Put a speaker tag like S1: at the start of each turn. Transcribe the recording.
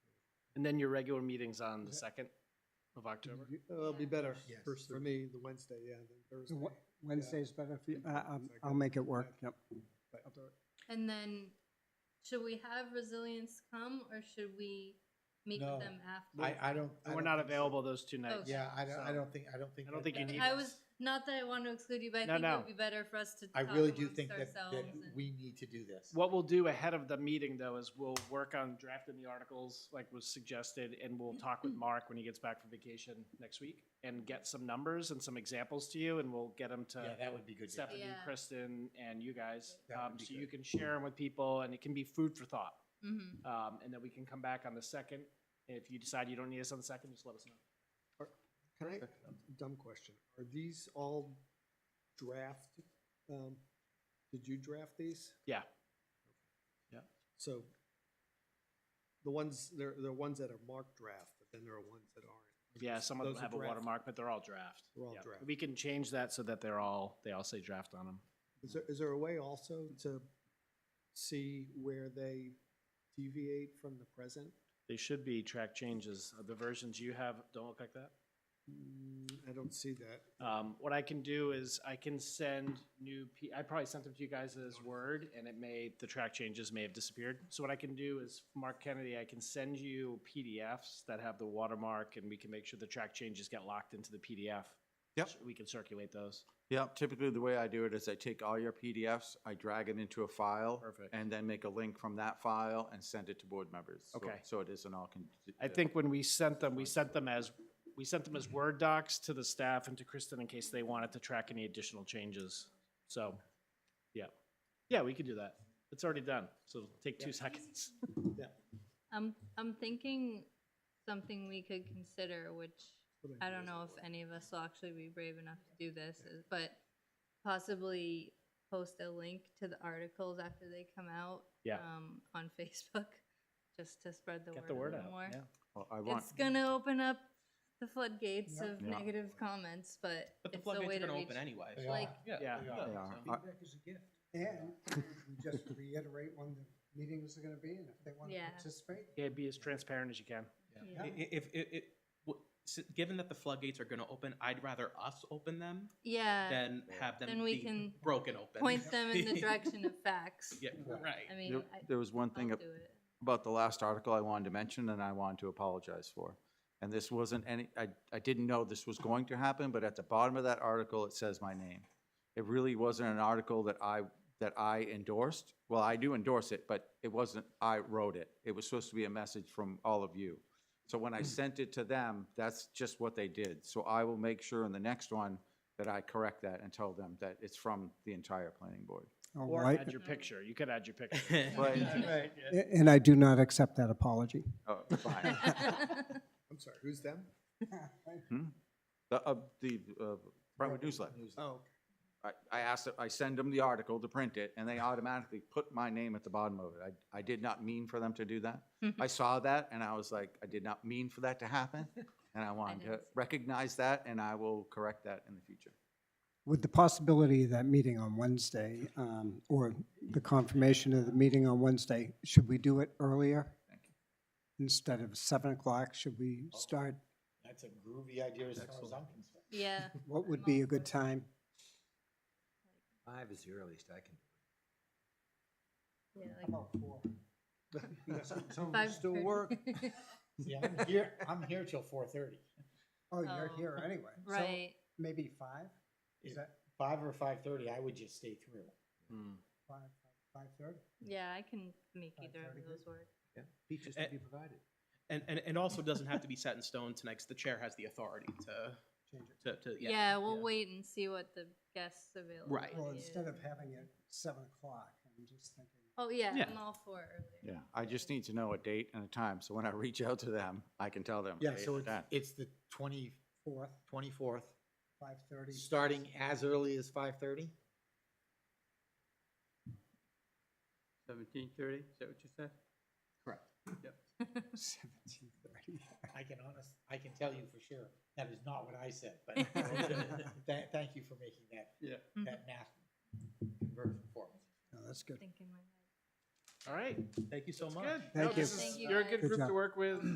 S1: And then your regular meeting's on the second of
S2: Mm-hmm.
S1: October?
S3: uh, It'll be better
S2: Yes.
S3: for- for me, the Wednesday, yeah, than Thursday.
S4: Wed- Wednesday's better for you?
S3: Yeah,
S4: Uh, um,
S3: it's like
S4: I'll
S3: a-
S4: make it work, yep.
S3: But I'll do it.
S5: And then, should we have resilience come or should we meet
S2: No.
S5: with them after?
S2: I, I don't. I
S1: We're
S2: don't
S1: not
S2: think so.
S1: available those two nights.
S2: Yeah, I don't, I
S1: So-
S2: don't think, I don't think.
S1: I don't
S2: that-
S1: think you
S2: that-
S1: need
S5: Oh, I was, not that I want to exclude you, but I
S1: No,
S5: think it
S1: no.
S5: would be better for us to
S2: I
S5: talk
S2: really do
S5: amongst
S2: think that, that
S5: ourselves. and-
S2: we need to do this.
S1: What we'll do ahead of the meeting, though, is we'll work on drafting the articles like was suggested, and we'll talk
S5: Mm-hmm.
S1: with Mark when he gets back from vacation next week and get some numbers and some examples to you, and we'll get them
S2: Yeah,
S1: to
S2: that would be good. to have.
S1: Stephanie,
S5: Yeah.
S1: Kristen, and you guys.
S2: That would
S1: Um,
S2: be
S1: so you
S2: good.
S1: can share them with people, and it can be food for thought.
S5: Mhm.
S1: Um, and then we can come back on the second. If you decide you don't need us on the second, just let us know.
S3: Can I, dumb question, are these all draft, um, did you draft these?
S1: Yeah.
S2: Yeah.
S3: So the ones, there, there are ones that are marked draft, but then there are ones that aren't.
S1: Yeah, some of them
S3: Those are
S1: have a
S3: draft.
S1: watermark, but they're all draft.
S3: They're all
S1: Yeah.
S3: draft.
S1: We can change that so that they're all, they all say draft on them.
S3: Is there, is there a way also to see where they deviate from the present?
S1: They should be track changes. Uh, The versions you have don't look like that.
S3: Mm, I don't see that.
S1: Um, what I can do is I can send new, P- I probably sent them to you guys as Word and it may, the track changes may have disappeared. So what I can do is, Mark Kennedy, I can send you PDFs that have the watermark and we can make sure the track changes get locked into the PDF.
S6: Yep.
S1: So We can circulate those.
S6: Yeah, typically the way I do it is I take all your PDFs, I drag it into a file,
S1: Perfect.
S6: and then make a link from that file and send it to board members. So-
S1: Okay.
S6: So it isn't all. con-
S1: I
S6: uh,
S1: think when we sent them, we sent them as, we sent them as Word docs to the staff and to Kristen in case they wanted to track any additional changes. So, yeah. Yeah, we could do that. It's already done, so it'll take two seconds.
S5: I'm, I'm thinking something we could consider, which
S3: What do
S5: I
S3: do
S5: don't
S3: is
S5: know
S3: I
S5: if
S3: work.
S5: any of us will actually be brave enough to do this, is- but possibly post a link to the articles after they come out.
S1: Yeah.
S5: um, On Facebook, just to spread the word
S1: Get
S5: a
S1: the word
S5: little
S1: out,
S5: more.
S1: yeah.
S6: Well, I want,
S5: It's gonna open up the floodgates
S2: Yeah.
S5: of
S6: Yeah.
S5: negative comments, but
S7: But the
S5: it's a way
S7: floodgates are
S5: to
S7: gonna
S5: reach.
S7: open anyway.
S2: They
S7: so-
S2: are.
S5: Like,
S1: Yeah.
S7: they
S6: They
S7: are,
S6: are.
S7: so-
S6: I-
S4: Feedback is a gift. And we just reiterate when the meetings are gonna be and if they want to
S5: Yeah.
S4: participate.
S1: Yeah, be as transparent as you can.
S7: I-
S5: yeah,
S7: i- If, if, it, w- s- given that the floodgates are gonna open, I'd rather us open them
S5: yeah,
S7: than have them
S5: Then we
S7: be
S5: can
S7: broken open.
S5: point them in the direction of facts.
S7: Yeah, right.
S5: I mean,
S6: there-
S5: I,
S6: there was one
S5: I'll
S6: thing
S5: do
S6: ab-
S5: it.
S6: about the last article I wanted to mention, and I wanted to apologize for. And this wasn't any, I, I didn't know this was going to happen, but at the bottom of that article, it says my name. It really wasn't an article that I, that I endorsed. Well, I do endorse it, but it wasn't, I wrote it. It was supposed to be a message from all of you. So when I sent it to them, that's just what they did. So I will make sure in the next one that I correct that and tell them that it's from the entire planning board.
S4: All
S1: Or
S4: right.
S1: add your picture. You could add your picture.
S6: Right.
S4: A- And I do not accept that apology.
S6: Oh, fine.
S3: I'm sorry, who's them?
S6: The, uh, the, uh, Brentwood newsletter.
S3: Oh,
S6: I, I asked, I send them the article to print it, and they automatically put my name at the bottom of it. I, I did not mean for them to do that.
S2: Mm-hmm.
S6: I saw that, and I was like, I did not mean for that to happen, and I wanted to
S5: didn't see that.
S6: recognize that, and I will correct that in the future.
S4: With the possibility of that meeting on Wednesday, um, or the confirmation of the meeting on Wednesday, should we do it earlier? Instead of seven o'clock, should we start,
S2: That's a groovy idea as far as I'm concerned.
S5: Yeah,
S4: what would be a good time?
S8: Five is the earliest I can.
S5: yeah, like
S4: Oh,
S5: five.
S4: still
S5: thirty.
S4: work.
S2: Yeah, I'm here, I'm here till four thirty.
S4: you're
S5: Oh.
S4: here anyway. So
S5: Right,
S4: Maybe five? Is
S2: Yeah.
S4: that
S2: Five or five thirty, I would just stay through.
S1: Hmm.
S4: five, five-thirty?
S5: yeah, I can make either
S4: thirty
S5: of those work.
S8: Yeah, beaches
S7: Eh.
S8: to be provided.
S7: And, and, and also doesn't have to be set in stone tonight's, the chair has the authority to,
S4: Change it.
S7: to, to, yeah.
S5: Yeah, we'll wait and see what the guests available.
S7: Right.
S4: Well, instead of having it seven o'clock, I'm just thinking.
S5: Oh, yeah,
S7: Yeah.
S5: I'm all for earlier.
S6: Yeah, I just need to know a date and a time, so when I reach out to them, I can tell them.
S2: Yeah,
S6: "Hey,
S2: so
S6: I'm
S2: it's,
S6: done."
S2: it's the twenty,
S4: Fourth,
S2: twenty-fourth,
S4: five-thirty.
S2: starting as early as five thirty?
S9: Seventeen thirty, is that what you said?
S2: Correct.
S4: Seventeen-thirty.
S2: I can honest, I can tell you for sure, that is not what I said, but tha- thank you for making that,
S9: Yeah.
S2: that math conversion for me.
S4: No, that's good.
S5: Thinking my head.
S1: All right.
S7: Thank you so much.
S1: Good.
S4: Thank
S1: No, this
S4: you.
S1: is-
S5: Thank you,
S1: You're a good
S4: guys. Good
S1: group to
S4: job.
S1: work with.